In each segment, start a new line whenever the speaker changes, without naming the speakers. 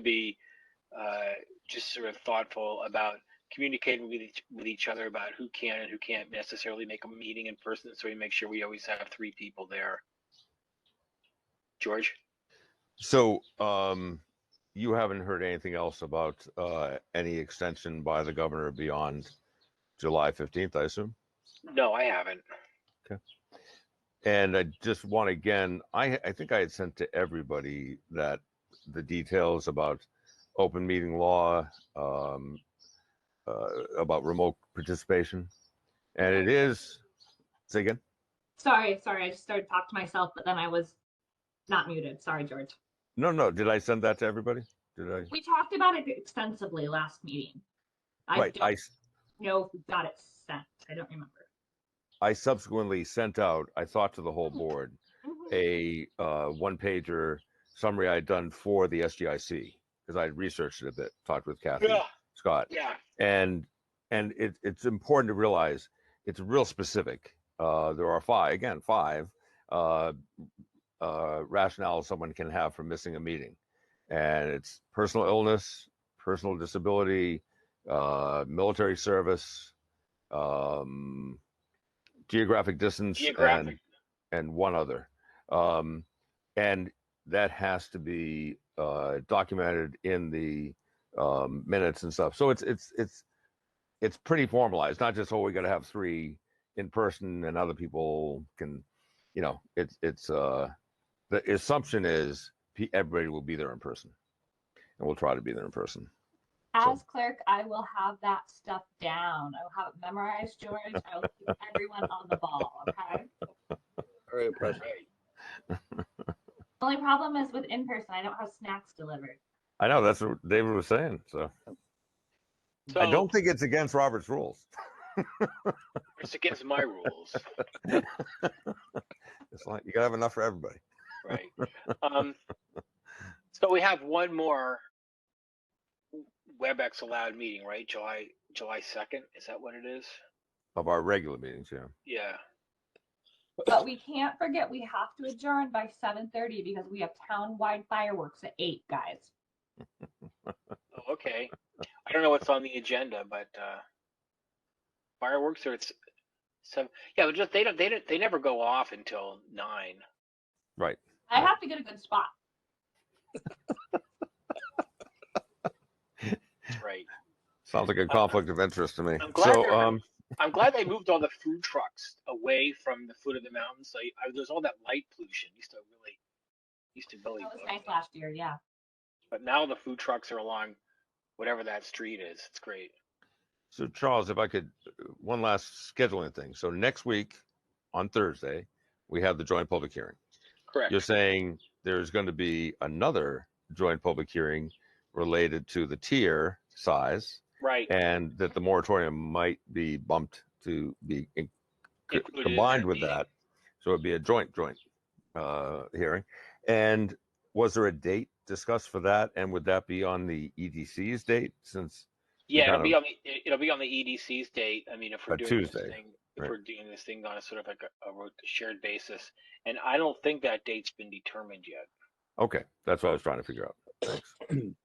be uh, just sort of thoughtful about communicating with each, with each other about who can and who can't necessarily make a meeting in person. So we make sure we always have three people there. George,
So, um, you haven't heard anything else about, uh, any extension by the governor beyond July fifteenth, I assume?
no, I haven't.
And I just want again, I, I think I had sent to everybody that the details about open meeting law, um, uh, about remote participation. And it is, say again?
Sorry, sorry, I just started talking to myself, but then I was not muted. Sorry, George.
No, no, did I send that to everybody? Did I?
We talked about it extensively last meeting. I
Right,
don't
I, s-
know if we got it sent. I don't remember.
I subsequently sent out, I thought to the whole board,
Mm-hmm.
a uh, one pager summary I'd done for the SGIC because I'd researched it a bit, talked with Kathy
Yeah,
Scott,
yeah,
and and it, it's important to realize it's real specific. Uh, there are five again, five uh, uh, rationales someone can have for missing a meeting, and it's personal illness, personal disability, uh, military service, um, geographic distance, and
geographic.
and one other. Um, and that has to be uh, documented in the um, minutes and stuff. So it's it's it's it's pretty formalized. Not just oh, we got to have three in person, and other people can, you know, it's it's uh, the assumption is pe- everybody will be there in person, and we'll try to be there in person. So-
As clerk, I will have that stuff down. I will have it memorized, George. I will keep everyone on the ball, okay?
Very impressive.
Right.
The Only problem is with in person, I don't have snacks delivered.
I know that's what David was saying. So
So
I don't think it's against Robert's rules.
it's against my rules,
It's like you gotta have enough for everybody.
right? Um, so we have one more WebEx allowed meeting, right? July, July 2nd. Is that what it is?
Of our regular meetings, yeah.
Yeah.
But we can't forget we have to adjourn by seven thirty because we have town-wide fireworks at eight, guys.
Oh, okay. I don't know what's on the agenda, but uh fireworks or it's some yeah, but just they don't they don't they never go off until nine.
I have to get a good spot.
That's right.
Sounds like a conflict of interest to me.
I'm glad
So,
they're-
um,
I'm glad they moved all the food trucks away from the foot of the mountain. So you- I, there's all that light pollution. Used to really used to really
That was
bug
nice
me.
last year, yeah.
but now the food trucks are along whatever that street is. It's great.
so Charles, if I could, uh, one last scheduling thing. So next week on Thursday, we have the joint public hearing.
Correct.
You're saying there's going to be another joint public hearing related to the tier size
right.
and that the moratorium might be bumped to be in- co-
Included in that
combined with
meeting.
that. So it'd be a joint, joint, uh, hearing. And was there a date discussed for that? And would that be on the EDC's date since
Yeah, it'll
kind
be on the it- it'll be on the EDC's date. I mean, if we're
A
doing this
Tuesday,
thing, if
right.
we're doing this thing on a sort of like a, a ro- shared basis, and I don't think that date's been determined yet.
Okay, that's what I was trying to figure out. Thanks.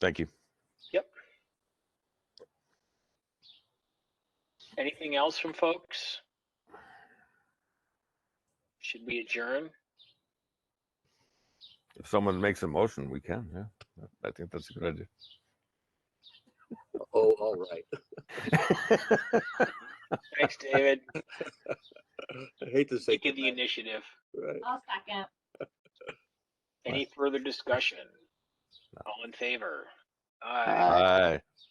Thank you.
Anything else from folks? Should we adjourn?
If someone makes a motion, we can, yeah. I think that's a good idea.
Oh, all right.
Thanks, David.
I hate to say
Taking the
goodnight,
initiative.
right?
I'll second.
Any further discussion? All in favor? Aye.
Aye.